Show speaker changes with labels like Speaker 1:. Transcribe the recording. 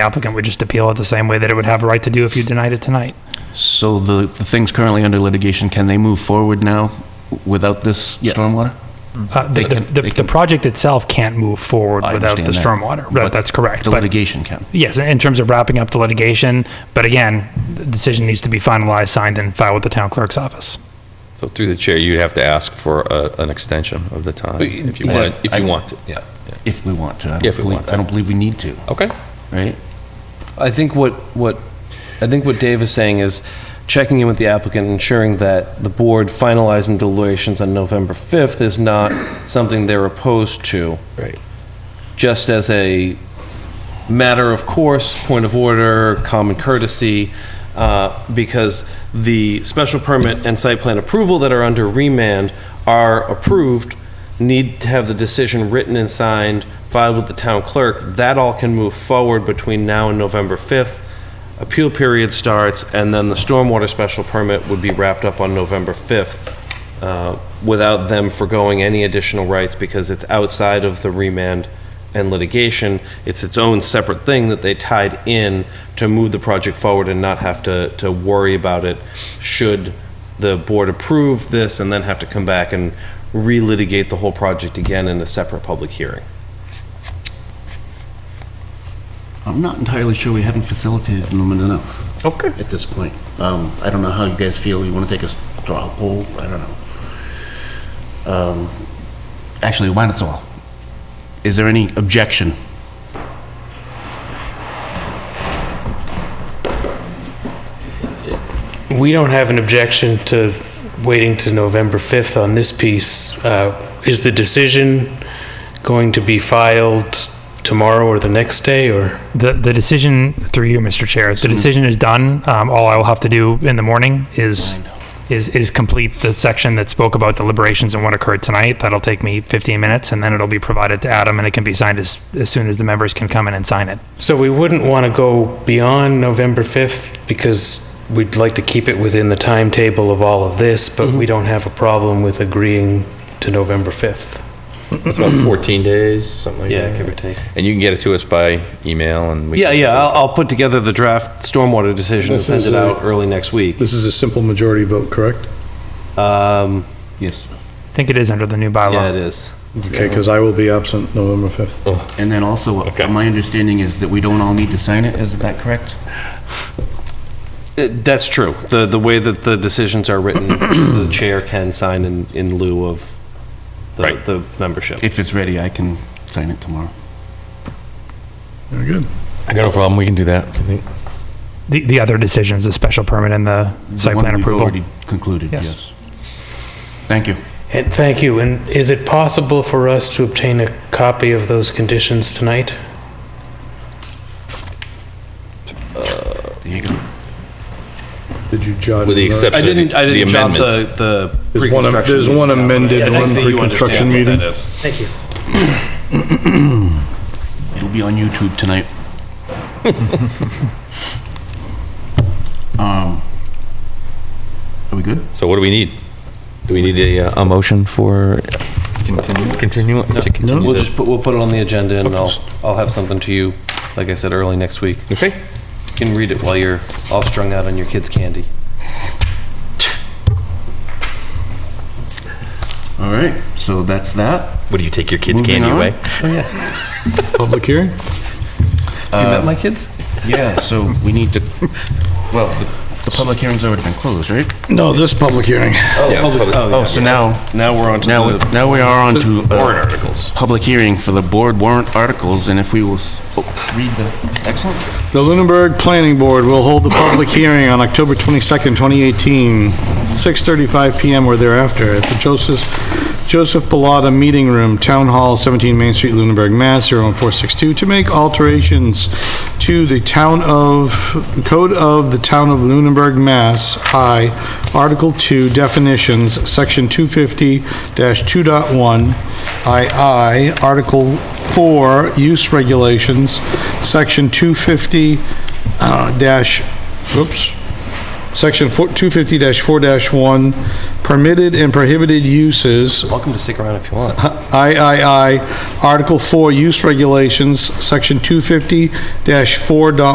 Speaker 1: applicant would just appeal it the same way that it would have a right to do if you denied it tonight.
Speaker 2: So the, the things currently under litigation, can they move forward now without this
Speaker 3: Yes.
Speaker 2: stormwater?
Speaker 1: Uh, The,
Speaker 2: can-
Speaker 1: the,
Speaker 2: Mm. they
Speaker 1: the project itself can't move forward
Speaker 2: I
Speaker 1: without the
Speaker 2: understand that.
Speaker 1: stormwater. That-
Speaker 2: But
Speaker 1: That's correct.
Speaker 2: The
Speaker 1: But
Speaker 2: litigation can.
Speaker 1: yes, in terms of wrapping up the litigation, but again, the decision needs to be finalized, signed, and filed with the town clerk's office.
Speaker 4: So through the chair, you'd have to ask for a- an extension of the time, if you
Speaker 2: yeah,
Speaker 4: wanted, if
Speaker 2: I-
Speaker 4: you want to, yeah.
Speaker 2: If we want to. I don't
Speaker 4: Yeah, if we
Speaker 2: believe-
Speaker 4: want to.
Speaker 2: I don't believe we need to,
Speaker 4: Okay,
Speaker 2: right?
Speaker 3: I think what, what, I think what Dave is saying is checking in with the applicant, ensuring that the board finalizing deliberations on November 5th is not something they're opposed to.
Speaker 4: Right.
Speaker 3: Just as a matter of course, point of order, common courtesy, uh, because the special permit and site plan approval that are under remand are approved, need to have the decision written and signed, filed with the town clerk. That all can move forward between now and November 5th. Appeal period starts, and then the stormwater special permit would be wrapped up on November 5th uh, without them foregoing any additional rights because it's outside of the remand and litigation. It's its own separate thing that they tied in to move the project forward and not have to, to worry about it should the board approve this and then have to come back and relitigate the whole project again in a separate public hearing.
Speaker 2: I'm not entirely sure we haven't facilitated them enough. Okay. At this point. Um, I don't know how you guys feel. You want to take a straw poll? I don't know. Um, Actually, why not all? Is there any objection?
Speaker 5: We don't have an objection to waiting to November 5th on this piece. Uh, Is the decision going to be filed tomorrow or the next day, or?
Speaker 1: The, the decision, through you, Mr. Chair, the decision is done. Um, all I will have to do in the morning is, is, is complete the section that spoke about deliberations and what occurred tonight. That'll take me 15 minutes, and then it'll be provided to Adam, and it can be signed as, as soon as the members can come in and sign it.
Speaker 5: So we wouldn't want to go beyond November 5th because we'd like to keep it within the timetable of all of this, but we don't have a problem with agreeing to November 5th.
Speaker 4: it's about 14 days, something like that.
Speaker 3: take.
Speaker 4: And you can get it to us by email and we.
Speaker 3: Yeah,
Speaker 4: can-
Speaker 3: yeah, I'll, I'll put together the draft stormwater decision and
Speaker 6: This
Speaker 3: send
Speaker 6: is
Speaker 3: it
Speaker 6: a-
Speaker 3: out early next week.
Speaker 6: This is a simple majority vote, correct?
Speaker 3: Um,
Speaker 2: Yes.
Speaker 1: I think it is under the new bylaw.
Speaker 3: yeah, it is.
Speaker 6: Okay, because I will be absent November 5th.
Speaker 2: And then also, uh,
Speaker 4: Okay.
Speaker 2: my understanding is that we don't all need to sign it. Is that correct?
Speaker 3: It- That's true. The, the way that the decisions are written, the chair can sign in, in lieu of the,
Speaker 4: Right.
Speaker 3: the membership.
Speaker 2: If it's ready, I can sign it tomorrow.
Speaker 6: Very good.
Speaker 7: I got no problem, we can do that, I think.
Speaker 1: The, the other decisions, the special permit and the
Speaker 2: The
Speaker 1: site
Speaker 2: one
Speaker 1: plan
Speaker 2: we've
Speaker 1: approval.
Speaker 2: already Concluded,
Speaker 1: Yes.
Speaker 2: yes. Thank you.
Speaker 5: And thank you. And is it possible for us to obtain a copy of those conditions tonight?
Speaker 2: There you go.
Speaker 6: Did you jot?
Speaker 4: With the
Speaker 6: it down?
Speaker 4: exception-
Speaker 3: I didn't, I
Speaker 4: The
Speaker 3: didn't jot
Speaker 4: amendments.
Speaker 3: the, the
Speaker 6: There's one am-
Speaker 3: pre-construction.
Speaker 6: there's one
Speaker 3: meeting.
Speaker 6: amended and
Speaker 3: I think
Speaker 6: one
Speaker 3: that you understand
Speaker 6: pre-construction
Speaker 3: what that
Speaker 6: meeting.
Speaker 3: is.
Speaker 5: Thank you.
Speaker 2: It'll be on YouTube tonight. Um, Are we good?
Speaker 4: So what do we need? Do we need a, uh, a motion for? Continue. Continue, to continue
Speaker 3: We'll
Speaker 4: this?
Speaker 3: just put, we'll put it on the agenda and I'll, I'll have something to you, like I said, early next week.
Speaker 4: Okay.
Speaker 3: You can read it while you're all strung out on your kids' candy.
Speaker 2: All right, so that's that.
Speaker 4: What, do you take your kids'
Speaker 2: Moving
Speaker 4: candy
Speaker 2: on.
Speaker 4: away?
Speaker 6: Public hearing?
Speaker 3: Have you met my kids?
Speaker 2: Yeah, so we need to, well, the- the public hearing's already been closed, right?
Speaker 6: No, this public hearing.
Speaker 4: Yeah, public-
Speaker 2: Oh, so now,
Speaker 3: Now we're on to
Speaker 2: now,
Speaker 3: the.
Speaker 2: now we are on to. uh,
Speaker 4: Warrant articles.
Speaker 2: Public hearing for the board warrant articles, and if we will s- oh, read the, excellent.
Speaker 6: The Lunenburg Planning Board will hold the public hearing on October 22nd, 2018, 6:35 PM or thereafter at the Joseph, Joseph Pilata Meeting Room, Town Hall, 17 Main Street, Lunenburg, Mass. 01462, to make alterations to the Town of, Code of the Town of Lunenburg, Mass. I, Article 2, Definitions, Section 250-2.1, II, Article 4, Use Regulations, Section 250, uh, dash, oops, Section 250-4-1, permitted and prohibited uses,
Speaker 3: Welcome to stick around if you want.
Speaker 6: III, Article 4, Use Regulations, Section 250-4.1.